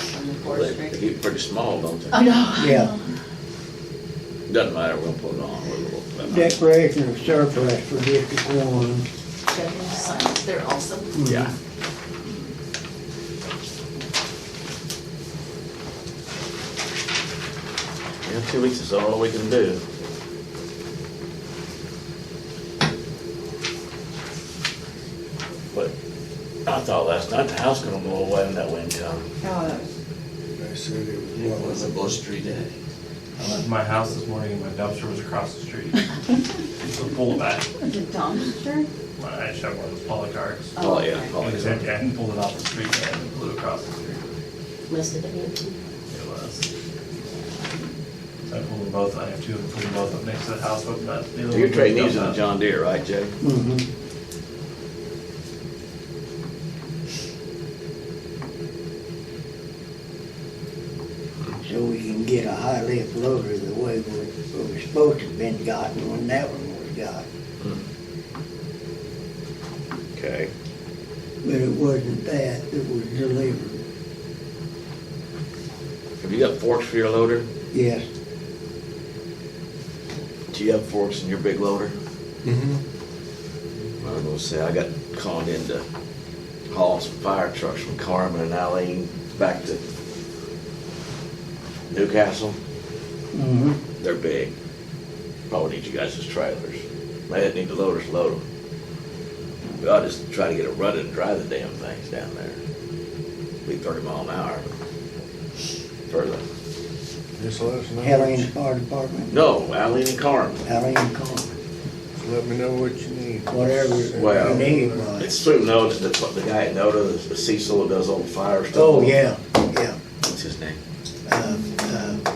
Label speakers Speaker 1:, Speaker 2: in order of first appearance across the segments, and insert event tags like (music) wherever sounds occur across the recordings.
Speaker 1: They- They
Speaker 2: Horseback.
Speaker 1: get pretty small, don't
Speaker 3: I
Speaker 1: they?
Speaker 3: know.
Speaker 2: Yeah,
Speaker 1: Doesn't matter, we'll put it on, we'll, we'll-
Speaker 2: declaration of surplus for District One. Mm-hmm.
Speaker 3: Got to sign it there also.
Speaker 1: yeah.
Speaker 4: Yeah, two weeks is all we can do. But I thought last night the house gonna blow away when that wind come.
Speaker 5: Oh, that was,
Speaker 6: They said it was
Speaker 1: It was a
Speaker 6: blowing.
Speaker 1: blustery day.
Speaker 7: I left my house this morning and my dumpster was across the street. So full of that.
Speaker 5: was it dumpster?
Speaker 7: My, I shot one of those poly carts.
Speaker 1: Oh, yeah.
Speaker 5: okay.
Speaker 1: oh,
Speaker 7: And
Speaker 1: yeah.
Speaker 7: it- and pulled it off the street and it blew across the street.
Speaker 3: Must have been.
Speaker 7: It was. So I pulled them both, I have two of them, pulled them both up next to the house, but that. the other
Speaker 1: You're
Speaker 7: one
Speaker 1: trading
Speaker 7: was
Speaker 1: these in a
Speaker 7: dumped out.
Speaker 1: John Deere, right, Jay?
Speaker 2: Mhm. So we can get a high lift loader the way we we were supposed to have been gotten when that one was got.
Speaker 1: Okay.
Speaker 2: But it wasn't that that was delivered.
Speaker 1: Have you got forks for your loader?
Speaker 2: Yes,
Speaker 1: Do you have forks in your big loader?
Speaker 6: Mhm.
Speaker 1: I was gonna say, I got called in to haul some fire trucks from Carmen and Alene back to Newcastle.
Speaker 2: mhm,
Speaker 1: They're big. Probably need you guys as trailers. They didn't need the loaders to load them. We ought to just try to get it running and drive the damn things down there. Be thirty mile an hour. Further.
Speaker 6: Just let us know.
Speaker 2: Helene's Fire Department,
Speaker 1: No, Alene and Carmen.
Speaker 2: Helene Coleman.
Speaker 6: Let me know what you need.
Speaker 2: Whatever
Speaker 1: Well,
Speaker 2: you need, Ron.
Speaker 1: It's through Noda, that's what the guy at Noda, Cecil, who does all the fire stuff.
Speaker 2: Oh, yeah, yeah.
Speaker 1: What's his name?
Speaker 2: Uh, uh,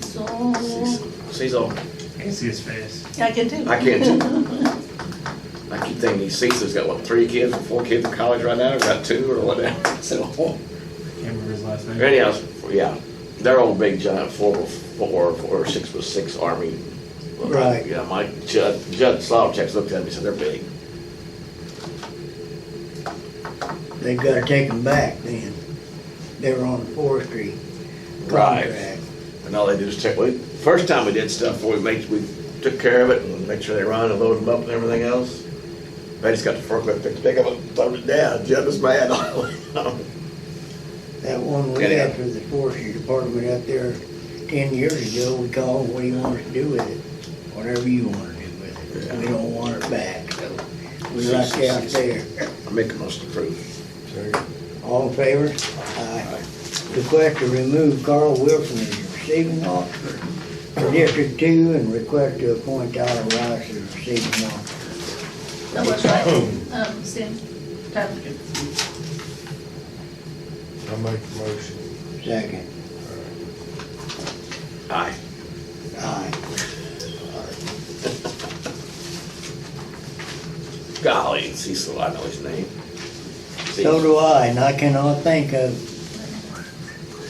Speaker 3: So,
Speaker 1: Cecil.
Speaker 7: I can see his face.
Speaker 3: yeah, I can do.
Speaker 1: I can too. I keep thinking these Cecil's got, what, three kids, or four kids in college right now, or got two, or whatever. (laughs) So,
Speaker 7: I Can't remember his last name.
Speaker 1: anyhow, yeah, they're all big giant four, by four, four, six by six army.
Speaker 2: Right.
Speaker 1: Yeah, Mike, Judd, Judd Slavchek's looked at me, said they're big.
Speaker 2: They've gotta take them back then. They were on the forestry
Speaker 1: Right.
Speaker 2: contract.
Speaker 1: And all they do is check, we, first time we did stuff, we made, we took care of it and make sure they run and load them up and everything else. They just got the forklift, picked pick up and throw it down, Judd was mad (laughs) all the way.
Speaker 2: That one we
Speaker 1: Yeah.
Speaker 2: had for the forestry department up there ten years ago, we called, what do you want us to do with it? Whatever you wanna do with it. We don't want it back, so we left it out there.
Speaker 1: I make a most approved.
Speaker 2: All in favor? Aye. Request to remove Carl Wilson as receiving officer for District Two and request to appoint Tyler Rice as receiving officer.
Speaker 3: That was right.
Speaker 1: Oh.
Speaker 3: Um, Sam, Tyler.
Speaker 6: I make the motion.
Speaker 2: Second.
Speaker 1: Aye.
Speaker 2: Aye.
Speaker 1: Golly, Cecil, I know his name.
Speaker 2: So do I, and I cannot think of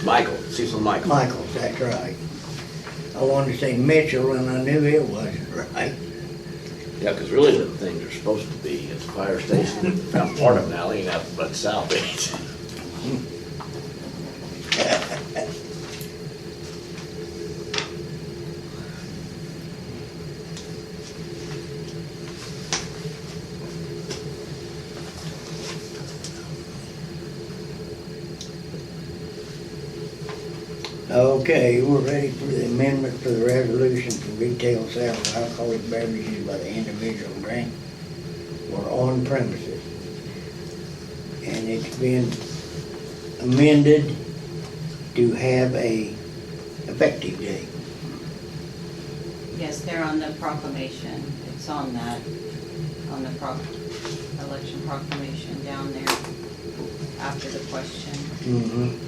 Speaker 1: Michael, Cecil Michael.
Speaker 2: Michael's, that's right. I wanted to say Mitchell, and I knew it wasn't right.
Speaker 1: Yeah, 'cause really the things are supposed to be at the fire station, found part of an alley out but south (laughs) end.
Speaker 2: Okay, we're ready for the amendment for the resolution for retail sale of alcoholic beverages by the individual drink or on premises. And it's been amended to have a effective date.
Speaker 5: Yes, they're on the proclamation. It's on that, on the proc, election proclamation down there after the question.
Speaker 2: Mm-hmm.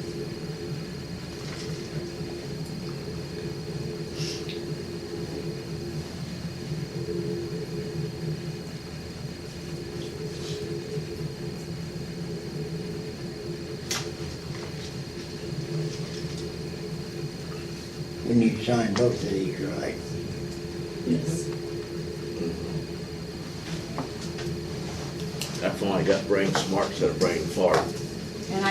Speaker 2: We need to sign both of these, right?
Speaker 3: Yes.
Speaker 1: That's why I got brain smart instead of brain fart.
Speaker 5: And I